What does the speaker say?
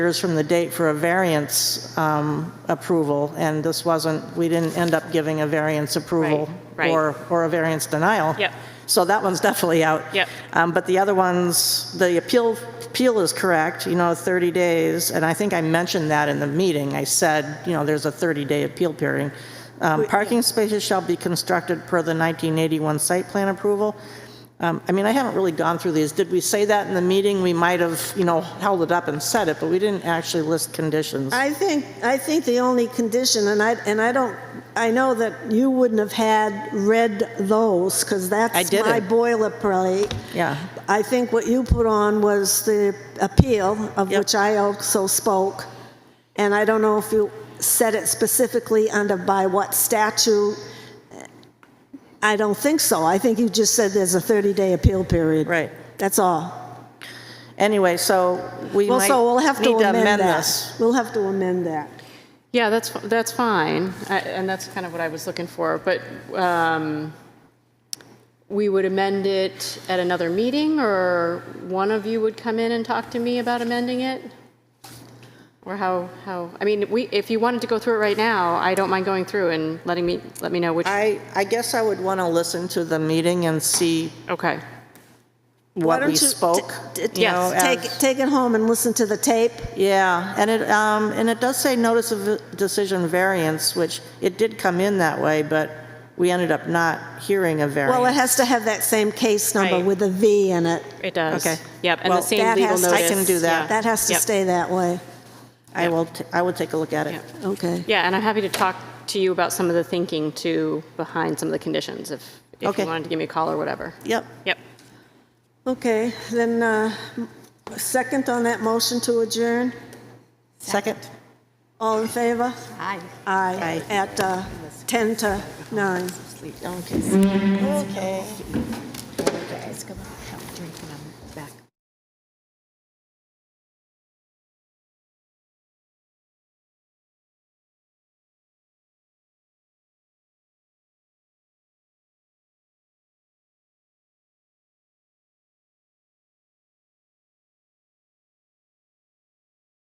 years from the date for a variance um, approval, and this wasn't, we didn't end up giving a variance approval Right, right. or, or a variance denial. Yep. So that one's definitely out. Yep. Um, But the other ones, the appeal, appeal is correct, you know, 30 days, and I think I mentioned that in the meeting. I said, you know, there's a 30-day appeal period. Um, Parking spaces shall be constructed per the 1981 site plan approval. Um, I mean, I haven't really gone through these. Did we say that in the meeting? We might have, you know, held it up and said it, but we didn't actually list conditions. I think, I think the only condition, and I, and I don't, I know that you wouldn't have had read those, because that's I didn't. my boilerplate. Yeah. I think what you put on was the appeal, of Yep. which I also spoke, and I don't know if you said it specifically under by what statute. I don't think so. I think you just said there's a 30-day appeal period. Right. That's all. Anyway, so we Well, might so we'll have to need to amend amend that. this. We'll have to amend that. Yeah, that's, fi- that's fine, I- and that's kind of what I was looking for, but um, we would amend it at another meeting, or one of you would come in and talk to me about amending it? Or how, how, I mean, we, if you wanted to go through it right now, I don't mind going through and letting me, let me know which, I, I guess I would want to listen to the meeting and see okay, Why what don't we you t- spoke. t- you know, yes, Take, as- take it home and listen to the tape. Yeah, and it, um, and it does say notice of decision variance, which it did come in that way, but we ended up not hearing a Well, it variance. has to have that same case number Right. with a V in it. it does. Okay. Yep, and the Well, same that legal has- notice. I can do that. yeah, That has to yep. stay that way. I will, t- I will take a look at it. Yeah. Okay. Yeah, and I'm happy to talk to you about some of the thinking too, behind some of the conditions, if, if Okay. you wanted to give me a call or whatever. Yep, Yep. Okay, then, uh, second on that motion to adjourn? second. All in favor? Hi. Aye. Aye. At uh, 10 to 9. Okay. Let's go back. Have a drink and I'm back.